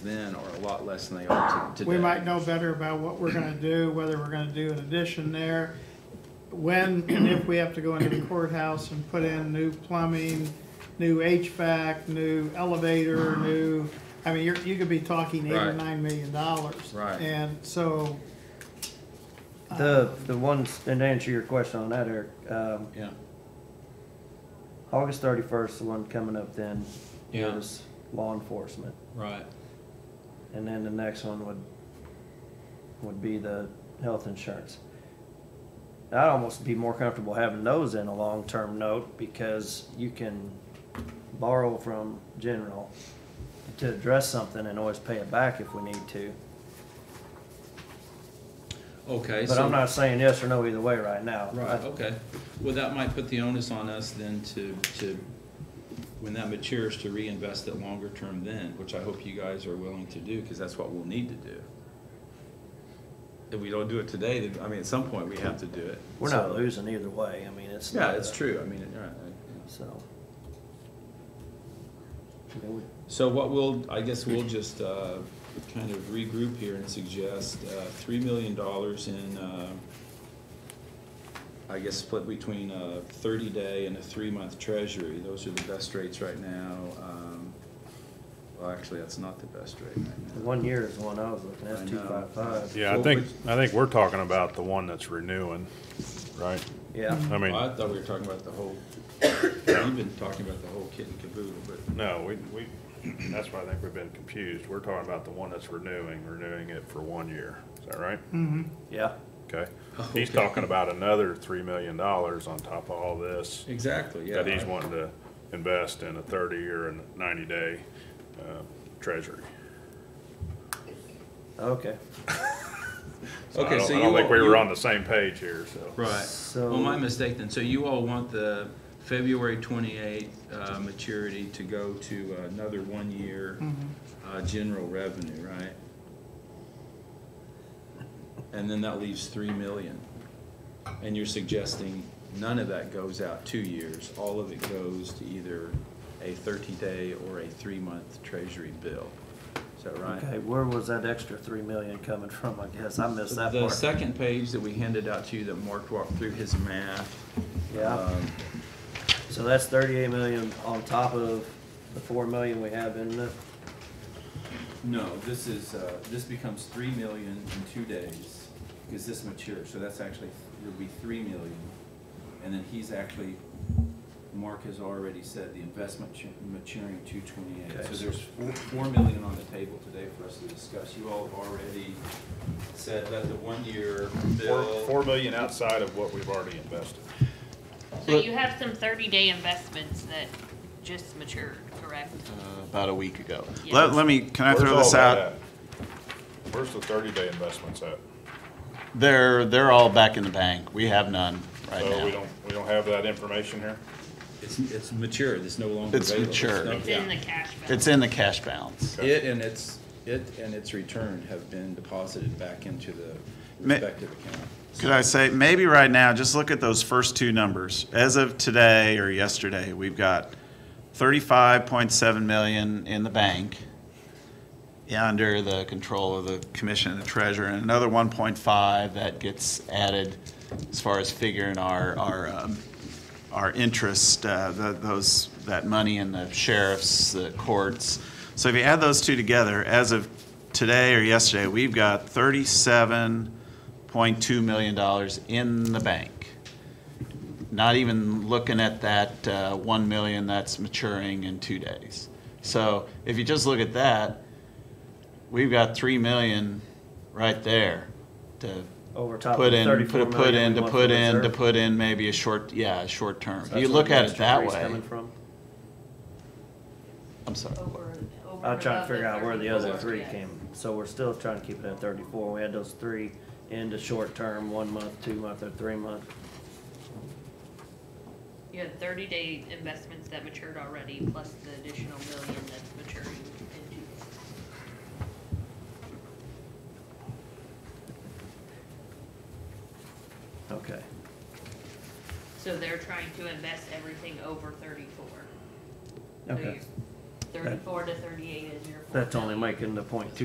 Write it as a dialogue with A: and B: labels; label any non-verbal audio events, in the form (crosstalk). A: then are a lot less than they are to- today.
B: We might know better about what we're gonna do, whether we're gonna do an addition there, when and if we have to go into the courthouse and put in new plumbing, new HVAC, new elevator, new, I mean, you're, you could be talking eight or
A: Right.
B: nine million dollars.
A: Right.
B: And so,
C: The, the ones, and to answer your question on that, Eric, um,
A: Yeah,
C: August thirty-first, the one coming up then.
D: Yeah.
C: is Law enforcement,
D: Right.
C: and then the next one would, would be the health insurance. I'd almost be more comfortable having those in a long-term note, because you can borrow from general to address something and always pay it back if we need to.
D: Okay.
C: But
D: so-
C: I'm not saying yes or no either way right now.
D: Right, okay. Well, that might put the onus on us then to, to, when that matures, to reinvest it longer term then, which I hope you guys are willing to do, because that's what we'll need to do. If we don't do it today, then, I mean, at some point, we have to do it.
C: We're not
D: So-
C: losing either way, I mean, it's.
D: Yeah,
C: not
D: it's
C: a-
D: true, I mean, it- right, right.
C: So. I mean, we-
D: So what we'll, I guess we'll just uh, kind of regroup here and suggest uh, three million dollars in, uh, I guess, split between a thirty-day and a three-month treasury. Those are the best rates right now. Um, Well, actually, that's not the best rate right
C: the
D: now.
C: One year is the one I was looking
D: I
C: at,
D: know.
C: two five five.
E: Yeah, I
D: Well,
E: think, I think we're talking about the one that's renewing, right?
C: Yeah,
E: I
D: Well,
E: mean,
D: I thought we were talking about the whole, (coughs) we've been talking about the whole kit and caboodle, but
E: no, we, we, that's why I think we've been confused. We're talking about the one that's renewing, renewing it for one year. Is that right?
C: yeah.
E: Okay. He's
D: Oh, Okay.
E: talking about another three million dollars on top of all this
D: exactly, yeah.
E: that he's wanting to invest in a thirty or a ninety day, uh, treasury.
C: Okay,
E: I
D: Okay,
E: don't-
D: so
E: I
D: you.
E: don't think
D: all-
E: we
D: you-
E: were on the same page here, so.
D: Right.
C: So-
D: Well, my mistake then. So you all want the February 28th uh, maturity to go to another one-year
C: Mm-hmm.
D: uh, general revenue, right? And then that leaves 3 million. And you're suggesting none of that goes out two years. All of it goes to either a 30-day or a three-month treasury bill. Is that right?
C: okay, where was that extra three million coming from, I guess, I missed that
D: The
C: part.
D: second page that we handed out to you that Mark walked through his math.
C: Yeah,
D: um,
C: so that's thirty-eight million on top of the four million we have in the,
A: no, this is, uh, this becomes three million in two days, because this matures, so that's actually, it'll be three million. And then he's actually, Mark has already said the investment chu- maturing two twenty-eight. So
C: Okay.
A: there's four, four million on the table today for us to discuss. You all have already said that the one-year
E: Four,
A: bill.
E: four million outside of what we've already invested.
F: So you have some thirty-day investments that just matured, correct?
C: Mm-hmm.
G: about a week ago.
F: Yeah.
G: Let, let me, can I
E: Where's
G: throw
E: all
G: this
E: that
G: out?
E: at? Where's the thirty-day investments at?
G: They're, they're all back in the bank. We have none right
E: So Oh, we
G: now.
E: don't, we don't have that information here?
D: It's, it's mature, it's no longer
G: It's
D: available.
G: mature.
D: no-
F: It's in the cash balance.
G: It's in the cash balance.
D: It and its, it and its return have been deposited back into the
G: Ma-
D: respective account.
G: Could I say, maybe right now, just look at those first two numbers. As of today or yesterday, we've got thirty-five point seven million in the bank under the control of the commission and the treasurer, and another one point five that gets added as far as figuring our, our, um, our interest, uh, the, those, that money in the sheriffs, the courts. So if you add those two together, as of today or yesterday, we've got thirty-seven point two million dollars in the bank. Not even looking at that uh, one million that's maturing in two days. So if you just look at that, we've got three million right there to
C: over top of
G: put
C: the
G: in,
C: thirty-four
G: put, put
C: million
G: in,
C: we
G: to
C: want
G: put
C: for
G: in, to
C: reserve.
G: put in maybe a short, yeah, a short term.
C: So
G: You
C: that's where
G: look
C: the
G: at it
C: extra
G: that
C: three's
G: way.
C: Coming from,
G: I'm sorry.
F: Over- over
C: I'm trying to
F: above the
C: figure out where the
F: 30
C: other
F: days.
C: three came, so we're still trying to keep it at thirty-four, we had those three into short term, one month, two month, or three month.
F: You had thirty-day investments that matured already, plus the additional million that's maturing in two days.
C: Okay,
F: So they're trying to invest everything over thirty-four. So
C: okay,
F: you- thirty-four to thirty-eight is your.
C: That's only
F: my.
C: making the point two